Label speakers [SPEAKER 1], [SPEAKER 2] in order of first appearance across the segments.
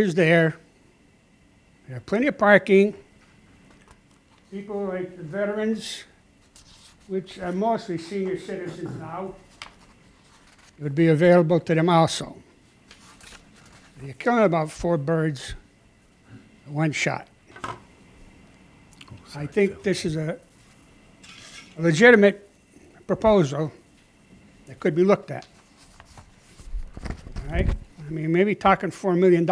[SPEAKER 1] is there. There are plenty of parking. People like the veterans, which are mostly senior citizens now, it would be available to them also. You're killing about four birds with one shot. I think this is a legitimate proposal that could be looked at. All right? I mean, maybe talking $4 million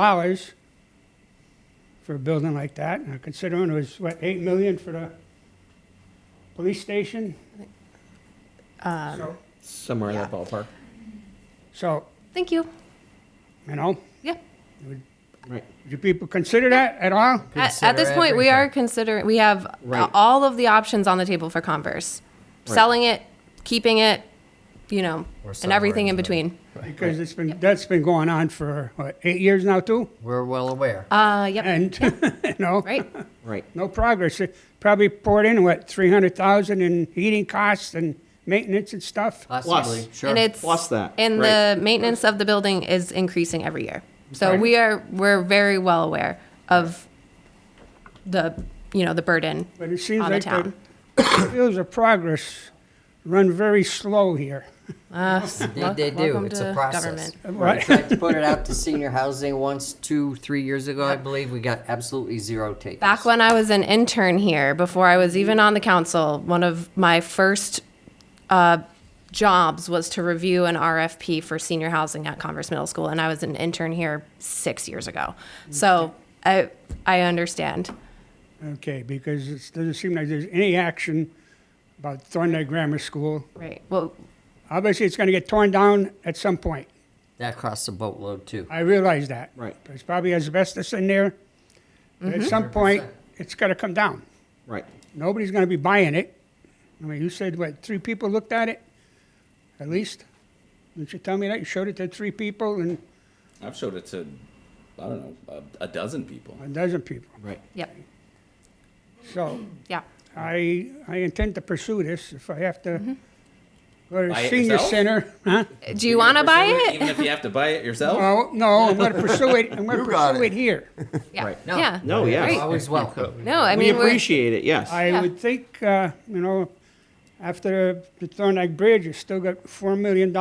[SPEAKER 1] for a building like that, and considering it was, what, 8 million for the police station? So-
[SPEAKER 2] Somewhere in that ballpark.
[SPEAKER 1] So,
[SPEAKER 3] Thank you.
[SPEAKER 1] you know,
[SPEAKER 3] Yeah.
[SPEAKER 2] Right.
[SPEAKER 1] do people consider that at all?
[SPEAKER 3] At, at this
[SPEAKER 4] Consider
[SPEAKER 3] point, we are considering, we have uh,
[SPEAKER 2] Right.
[SPEAKER 3] all of the options on the table for Converse.
[SPEAKER 2] Right.
[SPEAKER 3] Selling it, keeping it, you know,
[SPEAKER 4] Or
[SPEAKER 3] and
[SPEAKER 4] somewhere
[SPEAKER 3] everything in
[SPEAKER 4] in the-
[SPEAKER 3] between.
[SPEAKER 1] Because it's been, that's been going on for, what, eight years now, too?
[SPEAKER 4] We're well aware.
[SPEAKER 3] Uh, yep,
[SPEAKER 1] And, you know,
[SPEAKER 3] right.
[SPEAKER 2] Right.
[SPEAKER 1] no progress. It Probably poured in, what, 300,000 in heating costs and maintenance and stuff?
[SPEAKER 3] Uh,
[SPEAKER 4] Possibly, sure.
[SPEAKER 3] And it's.
[SPEAKER 2] Plus that,
[SPEAKER 3] And
[SPEAKER 2] right.
[SPEAKER 3] the maintenance of the building is increasing every year. So we are, we're very well aware of the, you know, the burden.
[SPEAKER 1] But it seems
[SPEAKER 3] on the
[SPEAKER 1] like the
[SPEAKER 3] town.
[SPEAKER 1] fields of progress run very slow here.
[SPEAKER 3] Uh,
[SPEAKER 4] They, they do.
[SPEAKER 3] welcome
[SPEAKER 4] It's
[SPEAKER 3] to
[SPEAKER 4] a process.
[SPEAKER 3] government.
[SPEAKER 4] We tried to put it out to senior housing once, two, three years ago, I believe. We got absolutely zero takers.
[SPEAKER 3] Back when I was an intern here, before I was even on the council, one of my first uh, jobs was to review an RFP for senior housing at Converse Middle School, and I was an intern here six years ago. So I I understand.
[SPEAKER 1] Okay, because it doesn't seem like there's any action about Thorndike Grammar School.
[SPEAKER 3] Right. Well,
[SPEAKER 1] Obviously, it's going to get torn down at some point.
[SPEAKER 4] That costs a boatload too.
[SPEAKER 1] I realize that.
[SPEAKER 2] Right.
[SPEAKER 1] There's probably asbestos in there. But at some point,
[SPEAKER 4] 100%.
[SPEAKER 1] it's going to come down.
[SPEAKER 2] Right.
[SPEAKER 1] Nobody's going to be buying it. I mean, you said, what, three people looked at it? At least? Didn't you tell me that? You showed it to three people and
[SPEAKER 5] I've showed it to, I don't know, a, a dozen people.
[SPEAKER 1] a dozen people.
[SPEAKER 2] Right.
[SPEAKER 3] yep.
[SPEAKER 1] So
[SPEAKER 3] Yeah.
[SPEAKER 1] I, I intend to pursue this if I have to go to
[SPEAKER 5] Buy
[SPEAKER 1] the
[SPEAKER 5] it
[SPEAKER 1] senior
[SPEAKER 5] yourself?
[SPEAKER 1] center. Huh?
[SPEAKER 3] Do you want to buy
[SPEAKER 5] Pursue
[SPEAKER 3] it?
[SPEAKER 5] Even if you have to buy it yourself?
[SPEAKER 1] Well, no, I'm going to pursue it. I'm going to
[SPEAKER 4] You got
[SPEAKER 1] pursue it
[SPEAKER 4] it.
[SPEAKER 1] here.
[SPEAKER 3] Yeah.
[SPEAKER 2] Right.
[SPEAKER 4] No.
[SPEAKER 3] Yeah.
[SPEAKER 2] No, yes.
[SPEAKER 3] Right.
[SPEAKER 4] Always welcome.
[SPEAKER 3] No, I
[SPEAKER 2] We
[SPEAKER 3] mean, we're,
[SPEAKER 2] appreciate it, yes.
[SPEAKER 1] I
[SPEAKER 3] Yeah.
[SPEAKER 1] would think, uh, you know, after the Thorndike Bridge, you still got $4 million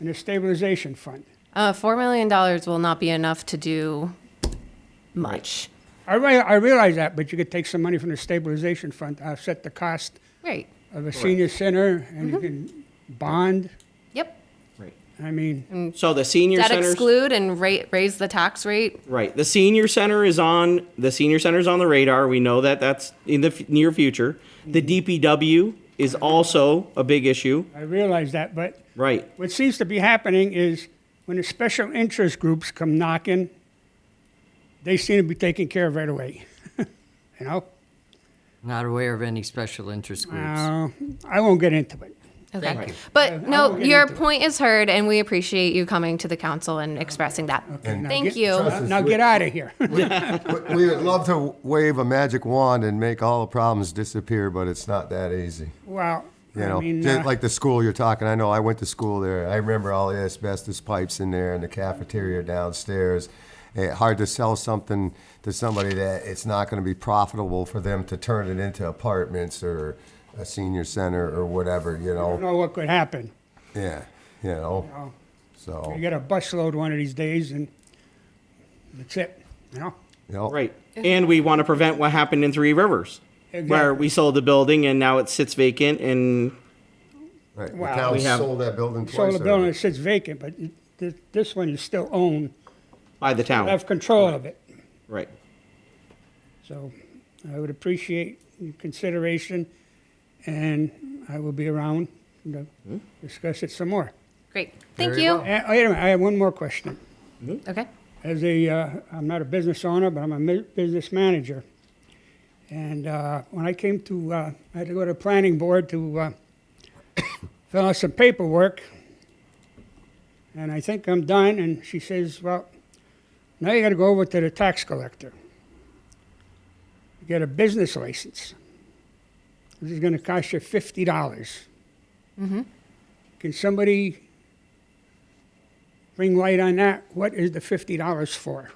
[SPEAKER 1] in a stabilization fund.
[SPEAKER 3] uh, $4 million will not be enough to do much.
[SPEAKER 1] I, re- I realize that, but you could take some money from the stabilization fund to offset the cost
[SPEAKER 3] Right.
[SPEAKER 1] of a senior center and you can bond.
[SPEAKER 3] Yep.
[SPEAKER 2] Right.
[SPEAKER 1] I mean,
[SPEAKER 2] So the senior
[SPEAKER 3] That
[SPEAKER 2] centers,
[SPEAKER 3] exclude and rate, raise the tax rate
[SPEAKER 2] right, the senior center is on, the senior center's on the radar. We know that that's in the f- near future. The DPW is also a big issue.
[SPEAKER 1] I realize that, but
[SPEAKER 2] Right.
[SPEAKER 1] what seems to be happening is when the special interest groups come knocking, they seem to be taken care of right away. you know?
[SPEAKER 4] Not aware of any special interest groups.
[SPEAKER 1] Uh, I won't get into it.
[SPEAKER 3] Okay.
[SPEAKER 4] Thank you.
[SPEAKER 3] But
[SPEAKER 1] will
[SPEAKER 3] no,
[SPEAKER 1] get
[SPEAKER 3] your
[SPEAKER 1] into it.
[SPEAKER 3] point is heard, and we appreciate you coming to the council and expressing that.
[SPEAKER 1] now
[SPEAKER 3] Thank
[SPEAKER 1] get-
[SPEAKER 3] you.
[SPEAKER 1] Now get out of here.
[SPEAKER 6] We- We would love to wave a magic wand and make all the problems disappear, but it's not that easy.
[SPEAKER 1] wow.
[SPEAKER 6] You
[SPEAKER 1] I
[SPEAKER 6] know,
[SPEAKER 1] mean,
[SPEAKER 6] Just
[SPEAKER 1] uh,
[SPEAKER 6] like the school you're talking. I know I went to school there. I remember all the asbestos pipes in there and the cafeteria downstairs. Eh, hard to sell something to somebody that it's not going to be profitable for them to turn it into apartments or a senior center or whatever. You
[SPEAKER 1] I don't
[SPEAKER 6] know,
[SPEAKER 1] know what could happen.
[SPEAKER 6] yeah, you know.
[SPEAKER 1] know.
[SPEAKER 6] So
[SPEAKER 1] You get a busload one of these days, and that's it. You know?
[SPEAKER 6] you know,
[SPEAKER 2] Right. And we want to prevent what happened in Three Rivers, where
[SPEAKER 1] Exactly.
[SPEAKER 2] we sold the building and now it sits vacant and
[SPEAKER 6] right. The
[SPEAKER 1] Wow.
[SPEAKER 6] town
[SPEAKER 2] We have-
[SPEAKER 6] sold that building twice.
[SPEAKER 1] So the building
[SPEAKER 6] already.
[SPEAKER 1] that sits vacant, but it- thi- this one you still own.
[SPEAKER 2] by the
[SPEAKER 1] I
[SPEAKER 2] town.
[SPEAKER 1] have control of it.
[SPEAKER 2] Right.
[SPEAKER 1] So I would appreciate your consideration, and I will be around to discuss it some more.
[SPEAKER 3] Great. Thank
[SPEAKER 4] Very
[SPEAKER 3] you.
[SPEAKER 4] well.
[SPEAKER 1] Uh, Wait a minute, I have one more question.
[SPEAKER 3] Okay.
[SPEAKER 1] as a, uh, I'm not a business owner, but I'm a mi- business manager. And uh, when I came to, uh, I had to go to the planning board to uh, fill out some paperwork. And I think I'm done. And she says, "Well, now you got to go over to the tax collector. Get a business license. This is going to cost you fifty dollars. Can somebody Bring light on that. What is the $50 for?